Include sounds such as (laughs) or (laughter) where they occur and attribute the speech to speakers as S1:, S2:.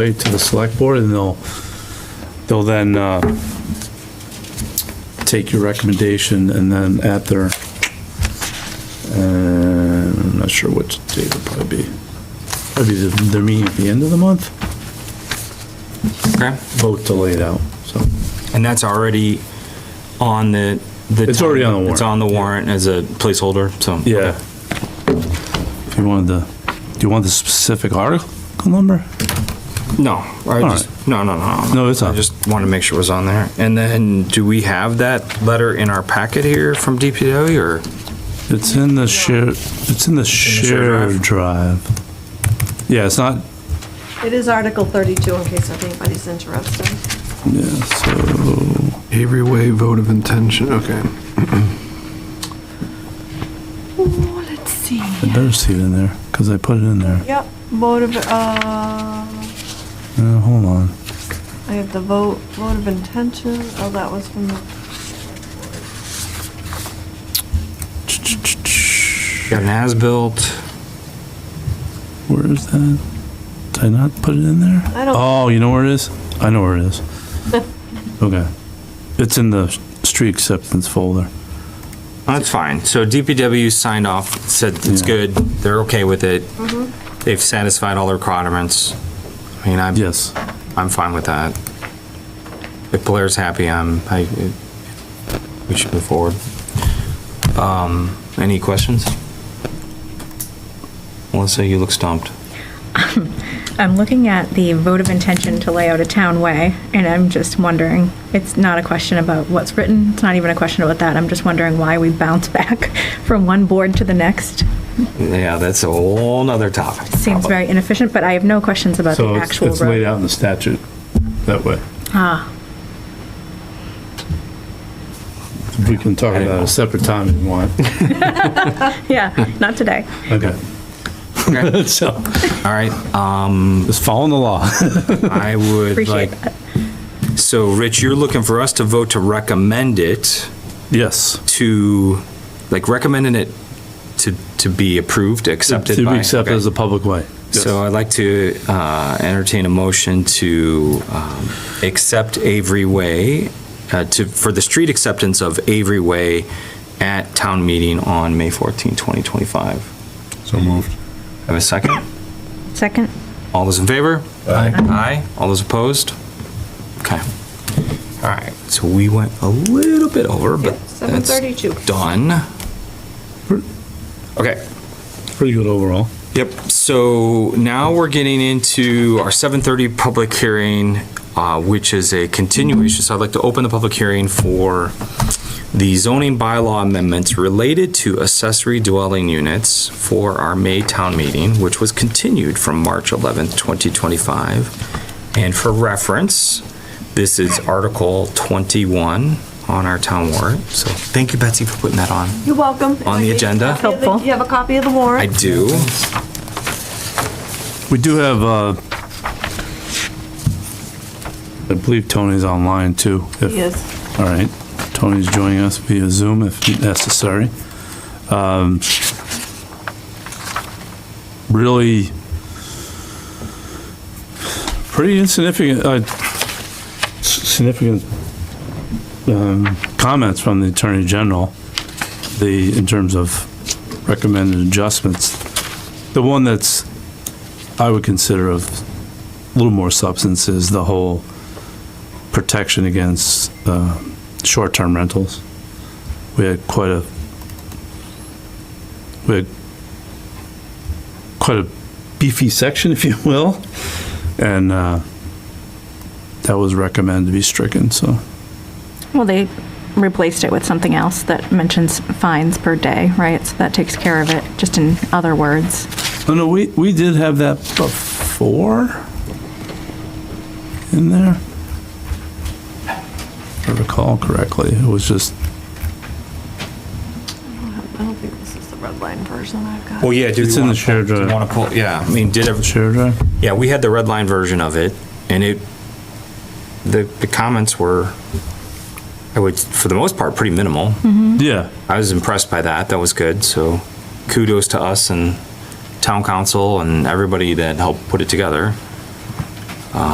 S1: way to the select board, and they'll, they'll then uh, take your recommendation, and then at their, uh, I'm not sure what date it'll probably be. Probably the- their meeting at the end of the month,
S2: Okay.
S1: vote to lay it out, so.
S2: And that's already on the. the
S1: It's already on the warrant.
S2: It's on the warrant as a placeholder, so.
S1: Yeah. If you wanted the, do you want the specific article number?
S2: No, I
S1: All
S2: just, no, no, no.
S1: No, it's
S2: I
S1: on.
S2: just want to make sure it was on there. And then, do we have that letter in our packet here from DPW or?
S1: It's in the share, it's in the share
S2: drive?
S1: drive. Yeah, it's not,
S3: It is Article 32, in case if anybody's interested.
S1: yeah, so.
S4: Avery Way vote of intention, okay.
S3: Ooh, Oh, let's see.
S1: I better see it in there, because I put it in there.
S3: Yep, vote of, uh, I
S1: Uh, hold on.
S3: have the vote, vote of intention, oh, that was from the,
S2: Got an as-built.
S1: Where is that? Did I not put it in there?
S3: I don't-
S1: Oh, you know where it is? I know where it
S5: (laughs)
S1: is. Okay. It's in the street acceptance folder.
S2: That's fine. So DPW signed off, said it's
S1: Yeah.
S2: good, they're okay with it. They've satisfied all their requirements. I mean, I'm,
S1: Yes.
S2: I'm fine with that. If Blair's happy, I'm, I, we should move forward. Um, any questions? Melissa, you look stumped.
S5: I'm looking at the vote of intention to lay out a town way, and I'm just wondering, it's not a question about what's written, it's not even a question about that, I'm just wondering why we bounce (laughs) back from one board to the next.
S2: Yeah, that's a whole nother topic.
S5: Seems very inefficient, but I have no questions about the
S1: So it's,
S5: actual
S1: it's laid
S5: road.
S1: out in the statute that way.
S5: Ah,
S1: We can talk about it a separate time if you
S5: (laughs)
S1: want.
S5: yeah, not today.
S1: Okay.
S2: Okay.
S1: (laughs) So,
S2: All right, um,
S1: it's following the law.
S2: (laughs) I would like,
S5: Appreciate that.
S2: so Rich, you're looking for us to vote to recommend it.
S1: Yes.
S2: to, like, recommending it to, to be approved, accepted by?
S1: To be accepted
S2: okay.
S1: as a public way. Yes.
S2: So I'd like to uh, entertain a motion to um, accept Avery Way, uh, to, for the street acceptance of Avery Way at town meeting on May 14, 2025. So moved. Have a second?
S5: Second?
S2: All those in favor? Aye. Aye. All those opposed? Okay. All right, so we went a little bit over, but that's
S3: 7:32.
S2: done. Okay.
S1: Pretty good overall.
S2: Yep, so now we're getting into our 7:30 public hearing, uh, which is a continuation. So I'd like to open the public hearing for the zoning bylaw amendments related to accessory dwelling units for our May town meeting, which was continued from March 11th, 2025. And for reference, this is Article 21 on our town warrant. So thank you, Betsy, for putting that on.
S3: you're welcome.
S2: On the agenda?
S3: Helpful. You have a copy of the
S2: I
S3: warrant?
S2: do.
S1: We do have, uh, I believe Tony's online too. if-
S3: Yes.
S1: All right, Tony's joining us via Zoom if necessary. Um, Really, pretty insignificant, uh, s- significant um, comments from the Attorney General, the, in terms of recommended adjustments. The one that's, I would consider of a little more substance is the whole protection against uh, short-term rentals. We had quite a, we had quite a beefy section, (laughs) if you will, and uh, that was recommended to be stricken, so.
S5: Well, they replaced it with something else that mentions fines per day, right? So that takes care of it, just in other words.
S1: Oh, no, we, we did have that before in there. If I recall correctly, it was just,
S3: I don't think this is the red line version I've got.
S2: Well, yeah, do
S1: it's in the shared drive.
S2: Want to pull, yeah, I mean, did, ev-
S1: Shared drive?
S2: Yeah, we had the red line version of it, and it, the, the comments were, I would, for the most part, pretty minimal.
S1: Yeah.
S2: I was impressed by that, that was good, so kudos to us and town council and everybody that helped put it together.